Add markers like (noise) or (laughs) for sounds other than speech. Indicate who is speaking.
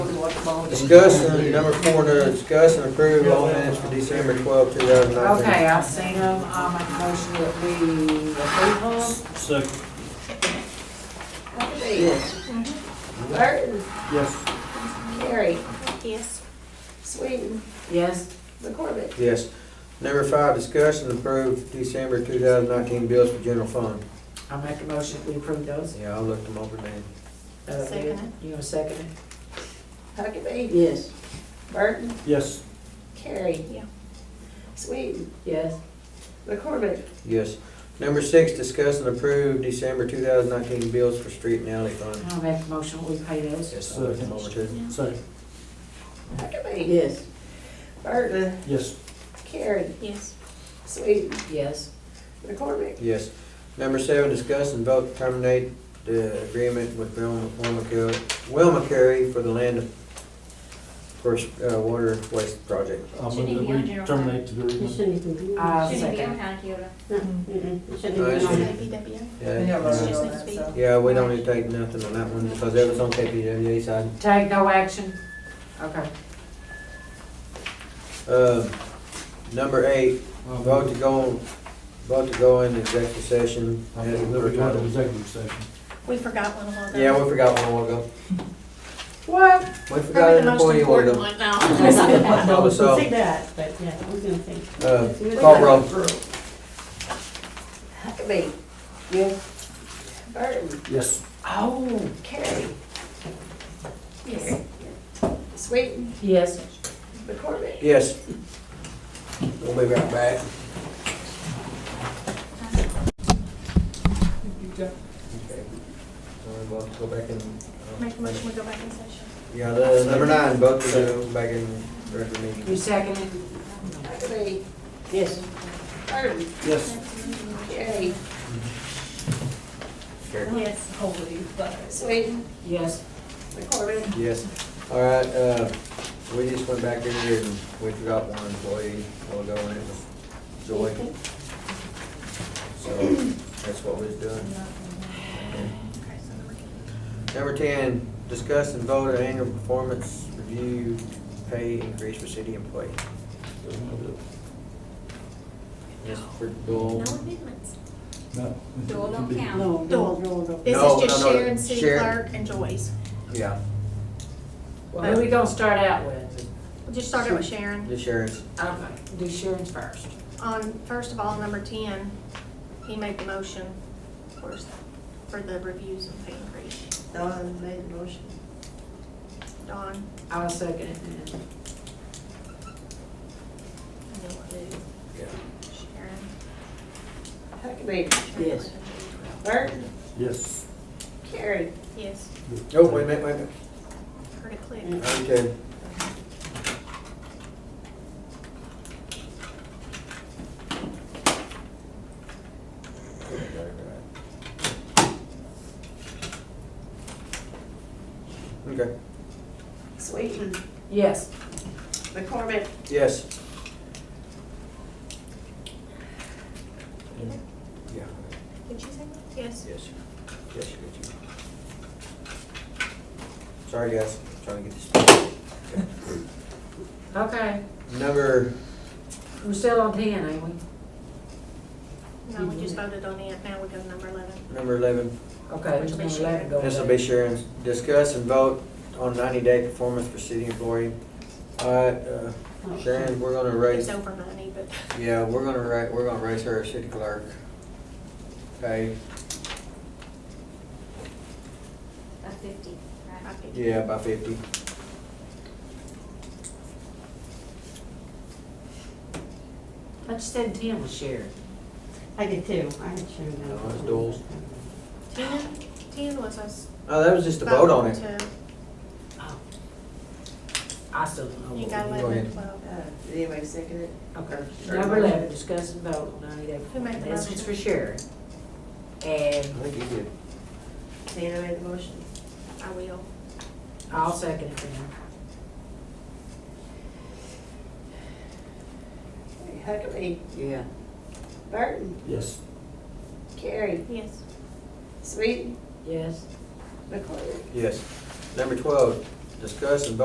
Speaker 1: Discuss, uh, number four, to discuss and approve all minutes for December twelfth, two thousand nineteen.
Speaker 2: Okay, I've seen them, I'll make a motion that we approve them.
Speaker 3: Second.
Speaker 2: Yes.
Speaker 4: Burton,
Speaker 3: Yes.
Speaker 4: Carey,
Speaker 5: Yes.
Speaker 4: Sweden,
Speaker 2: Yes,
Speaker 4: McCormick,
Speaker 1: Yes. Number five, discuss and approve December two thousand nineteen bills for general fund.
Speaker 2: I'll make a motion that we approve those.
Speaker 1: Yeah, I looked them over now.
Speaker 2: Uh,
Speaker 5: Second it.
Speaker 2: You gonna second it?
Speaker 4: Huckabee,
Speaker 2: Yes.
Speaker 4: Burton,
Speaker 3: Yes.
Speaker 4: Carey.
Speaker 5: Yeah.
Speaker 4: Sweden,
Speaker 2: Yes.
Speaker 4: McCormick,
Speaker 1: Yes. Number six, discuss and approve December two thousand nineteen bills for street and alley fund.
Speaker 2: I'll make a motion that we pay those.
Speaker 1: Yes, I looked them over too.
Speaker 3: Second.
Speaker 4: Huckabee,
Speaker 2: Yes.
Speaker 4: Burton,
Speaker 3: Yes.
Speaker 4: Carey,
Speaker 5: Yes.
Speaker 4: Sweden,
Speaker 2: Yes.
Speaker 4: McCormick,
Speaker 1: Yes. Number seven, discuss and vote to terminate the agreement with Wilma Wilma Carey- Wilma Carey for the land for uh, water waste project.
Speaker 3: I'll
Speaker 5: Should he be
Speaker 3: move
Speaker 5: on
Speaker 3: that we
Speaker 5: general
Speaker 3: terminate the agreement.
Speaker 2: I'll
Speaker 5: Shouldn't be
Speaker 2: second.
Speaker 5: on county Kyoto.
Speaker 1: (laughs)
Speaker 6: Mm-hmm.
Speaker 1: Nice. Yeah,
Speaker 5: KPW.
Speaker 1: Yeah, we don't need to take nothing on that one because that was on KPWA side.
Speaker 2: Take no action? Okay.
Speaker 1: Uh, Number eight,
Speaker 3: Um,
Speaker 1: vote to go, vote to go in executive session.
Speaker 3: I move that we go into executive session.
Speaker 5: We forgot one of all those.
Speaker 1: Yeah, we forgot one a while ago.
Speaker 2: What?
Speaker 1: We forgot an employee a while ago.
Speaker 5: one
Speaker 6: (laughs)
Speaker 5: now.
Speaker 1: Oh, so-
Speaker 6: We'll see that, but yeah, we're gonna think.
Speaker 1: Uh, Call roll.
Speaker 4: Huckabee. Yes. Burton,
Speaker 3: Yes.
Speaker 2: Oh.
Speaker 4: Carey,
Speaker 5: Yes.
Speaker 4: Sweden,
Speaker 2: Yes.
Speaker 4: McCormick.
Speaker 1: Yes. We'll be right back. Okay. Sorry, we'll have to go back in.
Speaker 5: Make a motion, we go back in session.
Speaker 1: Yeah, the number nine, vote to go back in regular
Speaker 2: You
Speaker 1: meeting.
Speaker 2: second it?
Speaker 4: Huckabee,
Speaker 6: Yes.
Speaker 4: Burton,
Speaker 3: Yes.
Speaker 4: Carey,
Speaker 5: Yes.
Speaker 6: Holy, but.
Speaker 4: Sweden,
Speaker 2: Yes.
Speaker 4: McCormick.
Speaker 1: Yes. All right, uh, we just went back in here and we forgot one employee a while ago and it was Joy. So that's what we was doing.
Speaker 5: Okay, so we're good.
Speaker 1: Number ten, discuss and vote on annual performance review pay increase for city employee. Yes, for Joel.
Speaker 5: No amendments.
Speaker 3: No.
Speaker 5: Joel don't count.
Speaker 6: No, no, no, no.
Speaker 5: This
Speaker 1: No,
Speaker 5: is just
Speaker 1: no, no,
Speaker 5: Sharon, city
Speaker 1: Sharon.
Speaker 5: clerk, and Joyce.
Speaker 1: Yeah,
Speaker 2: Well, who we gonna start out with?
Speaker 5: We'll Just started with Sharon.
Speaker 1: the sheriff's.
Speaker 2: Okay, do Sharon's first.
Speaker 5: On, first of all, number ten, he made the motion for, for the reviews and pay increase.
Speaker 6: Don made the motion.
Speaker 5: Dawn,
Speaker 2: I'll second it then.
Speaker 5: and then we'll do
Speaker 1: Yeah.
Speaker 5: Sharon.
Speaker 4: Huckabee,
Speaker 6: Yes.
Speaker 4: Burton,
Speaker 3: Yes.
Speaker 4: Carey,
Speaker 5: Yes,
Speaker 1: Oh, wait a minute, wait a minute.
Speaker 5: heard it click.
Speaker 1: Okay. Okay,
Speaker 4: Sweden,
Speaker 2: Yes.
Speaker 4: McCormick,
Speaker 1: yes. Yeah,
Speaker 5: Did she say? Yes.
Speaker 1: yes, yes, you got you. Sorry, guys, trying to get this.
Speaker 2: Okay,
Speaker 1: Number,
Speaker 2: we're still on ten, ain't we?
Speaker 5: No, we just voted on it, now we go to number eleven.
Speaker 1: number eleven,
Speaker 2: Okay, there's
Speaker 5: Which
Speaker 2: no
Speaker 5: will be
Speaker 2: eleven
Speaker 5: Sharon.
Speaker 2: going.
Speaker 1: This will be Sharon's. Discuss and vote on ninety-day performance for city employee. All right, uh, Sharon, we're gonna raise,
Speaker 5: It's over money, but
Speaker 1: yeah, we're gonna ra, we're gonna raise her a city clerk. Okay,
Speaker 7: of fifty, right?
Speaker 5: I think.
Speaker 1: yeah, by fifty.
Speaker 2: I just said ten was Sharon.
Speaker 6: I did too, I had Sharon.
Speaker 1: No, it's Dole's.
Speaker 5: Ten, ten was us.
Speaker 1: Oh, that was just a vote on it.
Speaker 5: voting
Speaker 2: Oh. I still don't know.
Speaker 5: to- You
Speaker 2: what
Speaker 5: got
Speaker 1: Go
Speaker 5: eleven
Speaker 1: ahead.
Speaker 5: and twelve.
Speaker 4: Uh, Did anybody second it?
Speaker 2: we- Okay,
Speaker 4: Sure.
Speaker 2: number eleven, discuss and vote on ninety day.
Speaker 5: Who made the
Speaker 2: This
Speaker 5: motion?
Speaker 2: is for Sharon.
Speaker 1: I
Speaker 2: And
Speaker 1: think you did.
Speaker 4: Tina made the motion.
Speaker 5: I will.
Speaker 2: I'll second it then.
Speaker 4: Huckabee,
Speaker 6: Yeah.
Speaker 4: Burton,
Speaker 3: Yes.
Speaker 4: Carey,
Speaker 5: Yes.
Speaker 4: Sweden,
Speaker 2: Yes.
Speaker 4: McCormick.
Speaker 1: Yes. Number twelve, discuss and vote